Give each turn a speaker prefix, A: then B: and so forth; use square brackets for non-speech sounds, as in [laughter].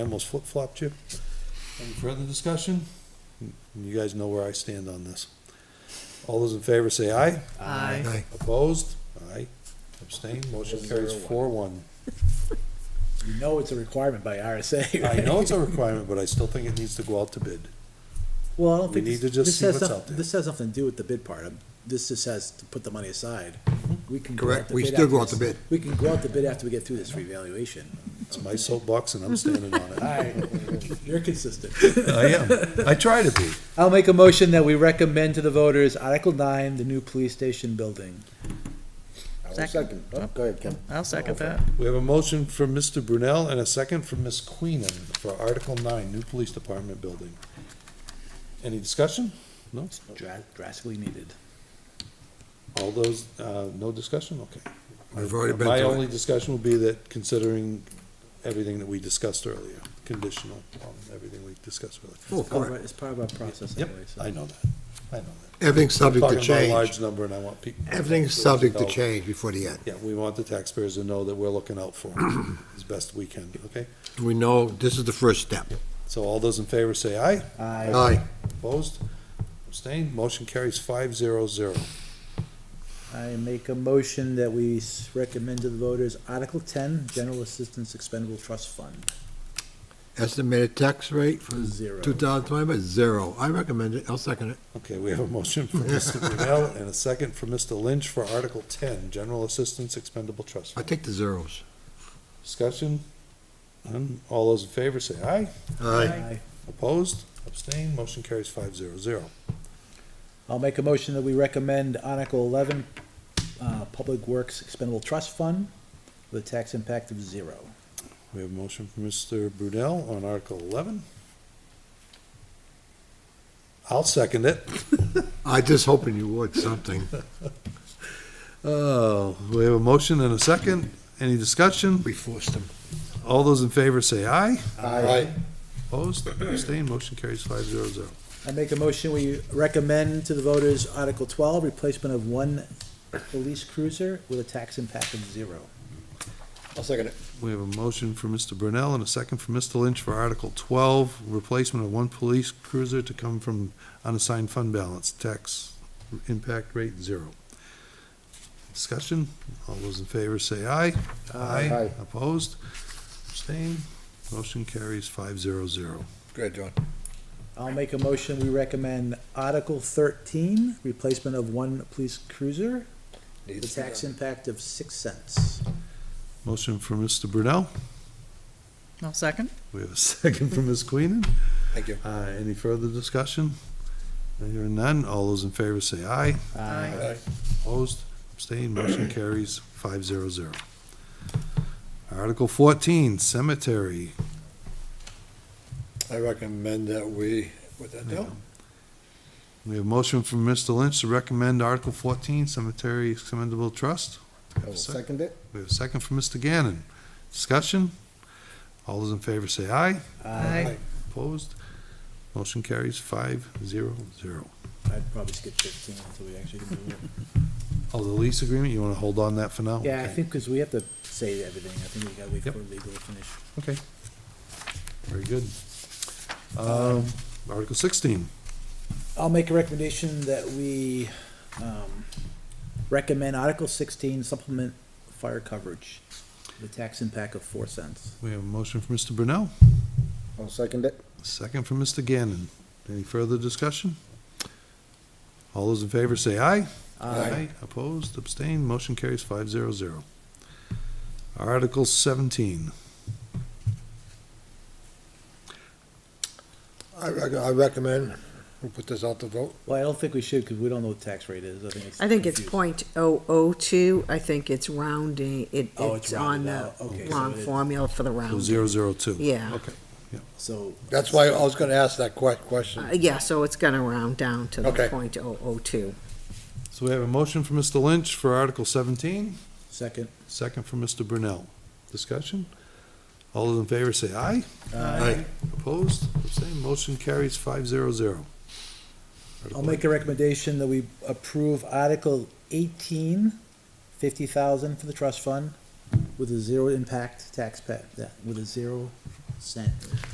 A: almost flip-flopped you.
B: Any further discussion?
A: You guys know where I stand on this. All those in favor say aye.
C: Aye.
D: Aye.
A: Opposed? Aye. Abstain. Motion carries four one.
C: You know it's a requirement by RSA,
A: I
C: right?
A: know it's a requirement, but I still think it needs to go out to bid.
C: [laughs] Well, I don't
A: We
C: think.
A: need
C: this-
A: to just
C: this
A: see
C: has
A: what's
C: noth-
A: out there.
C: This has nothing to do with the bid part. Um, This just has to put the money aside. We can. go
D: Correct.
C: out to
D: We
C: bid
D: still
C: after
D: go out to
C: this-
D: bid.
C: We can go out to bid after we get through this revaluation.
A: It's my soapbox and I'm standing on it.
C: You're consistent.
A: [laughs] I am. I try to be.
C: I'll make a motion that we recommend to the voters Article nine, the new police station building.
E: Second. Oh, Go ahead, Ken.
F: I'll second that.
A: We have a motion from Mr. Brunel and a second from Ms. Queenan for Article nine, new police department building. Any discussion? No?
C: Dra- Drastically needed.
A: All those, uh, no discussion? Okay.
D: We've already been
A: My
D: through
A: only
D: it.
A: discussion will be that considering everything that we discussed earlier, conditional on everything we discussed earlier.
D: Oh,
C: It's part of
D: correct.
C: our- It's part of our process
A: Yep,
C: anyway, so.
A: I know that, I know that.
D: Everything's subject to
A: Talking about a
D: change.
A: large number and I want people.
D: Everything's subject to change before the end.
A: Yeah, we want the taxpayers to know that we're looking out for them
D: [clears throat]
A: as best we can, okay?
D: We know this is the first step.
A: So all those in favor say aye,
C: Aye.
D: Aye.
A: opposed, abstained, motion carries five zero zero.
C: I make a motion that we s- recommend to the voters Article ten, General Assistance Expendable Trust Fund.
D: Estimated tax rate for
C: Zero.
D: 2020, zero. I recommend it. I'll second it.
A: Okay, we have a motion from
D: [laughs]
A: Mr. Brunel and a second from Mr. Lynch for Article ten, General Assistance Expendable Trust.
D: I
A: Fund.
D: take the zeros.
A: Discussion? None? All those in favor say aye.
D: Aye.
A: Opposed? Abstained? Motion carries five zero zero.
C: I'll make a motion that we recommend Article eleven, uh, Public Works Expendable Trust Fund with a tax impact of zero.
A: We have a motion from Mr. Brunel on Article eleven. I'll second it.
D: I just hoping you would, something.
A: [laughs] Oh, we have a motion and a second. Any discussion?
D: We forced them.
A: All those in favor say aye.
D: Aye.
A: Opposed? Abstained? Motion carries five zero zero.
C: I make a motion, we recommend to the voters Article twelve, replacement of one police cruiser with a tax impact of zero.
E: I'll second it.
A: We have a motion for Mr. Brunel and a second for Mr. Lynch for Article twelve, replacement of one police cruiser to come from unassigned fund balance, tax impact rate zero. Discussion, all those in favor say aye.
E: Aye.
A: Opposed, abstained, motion carries five zero zero.
E: Good, John.
C: I'll make a motion, we recommend Article thirteen, replacement of one police cruiser with a tax impact of six cents.
A: Motion for Mr. Brunel,
F: I'll second.
A: we have a [laughs] second for Ms. Queenan.
E: Thank you.
A: Uh, any further discussion? Hearing none, all those in favor say aye.
F: Aye.
A: Opposed, abstained, motion carries five zero zero. Article fourteen, cemetery.
E: I recommend that we, with that down.
A: We have a motion from Mr. Lynch to recommend Article fourteen, cemetery expendable trust.
E: I will second it.
A: We have a second from Mr. Gannon. Discussion? All those in favor say aye.
F: Aye.
A: Opposed, motion carries five zero zero.
C: I'd probably skip fifteen until we actually can do it.
A: Oh, the lease agreement, you wanna hold on that for now?
C: Yeah, I
A: Okay.
C: think, because we have to say everything, I think we gotta wait
A: Yep.
C: for legal to finish.
A: Okay. Very good. Um, Article sixteen.
C: I'll make a recommendation that we, um, recommend Article sixteen supplement fire coverage, the tax impact of four cents.
A: We have a motion from Mr. Brunel,
E: I'll second it.
A: a second from Mr. Gannon. Any further discussion? All those in favor say aye. Opposed, abstained, motion carries five zero zero. Article seventeen.
D: I rec- I recommend, we put this out to vote.
C: Well, I don't think we should, because we don't know what the tax rate is, I think it's.
G: I think it's
C: confusing.
G: point oh oh two, I think it's rounding, it,
C: Oh,
G: it's
C: it's rounded
G: on the
C: out, okay, so
G: wrong
C: it-
G: formula for the
A: Oh,
G: round.
A: zero zero two.
G: Yeah.
A: Okay,
C: So,
D: That's why I was gonna ask that que- question.
G: Uh, yeah, so it's gonna round down to the
D: Okay.
G: point oh oh two.
A: so we have a motion from Mr. Lynch for Article seventeen,
C: second,
A: second from Mr. Brunel. Discussion? All those in favor say aye.
C: uh,
D: Aye.
A: Opposed, abstained, motion carries five zero zero.
C: I'll make a recommendation that we approve Article eighteen, fifty thousand for the trust fund, with a zero impact tax pa, yeah, with a zero cent.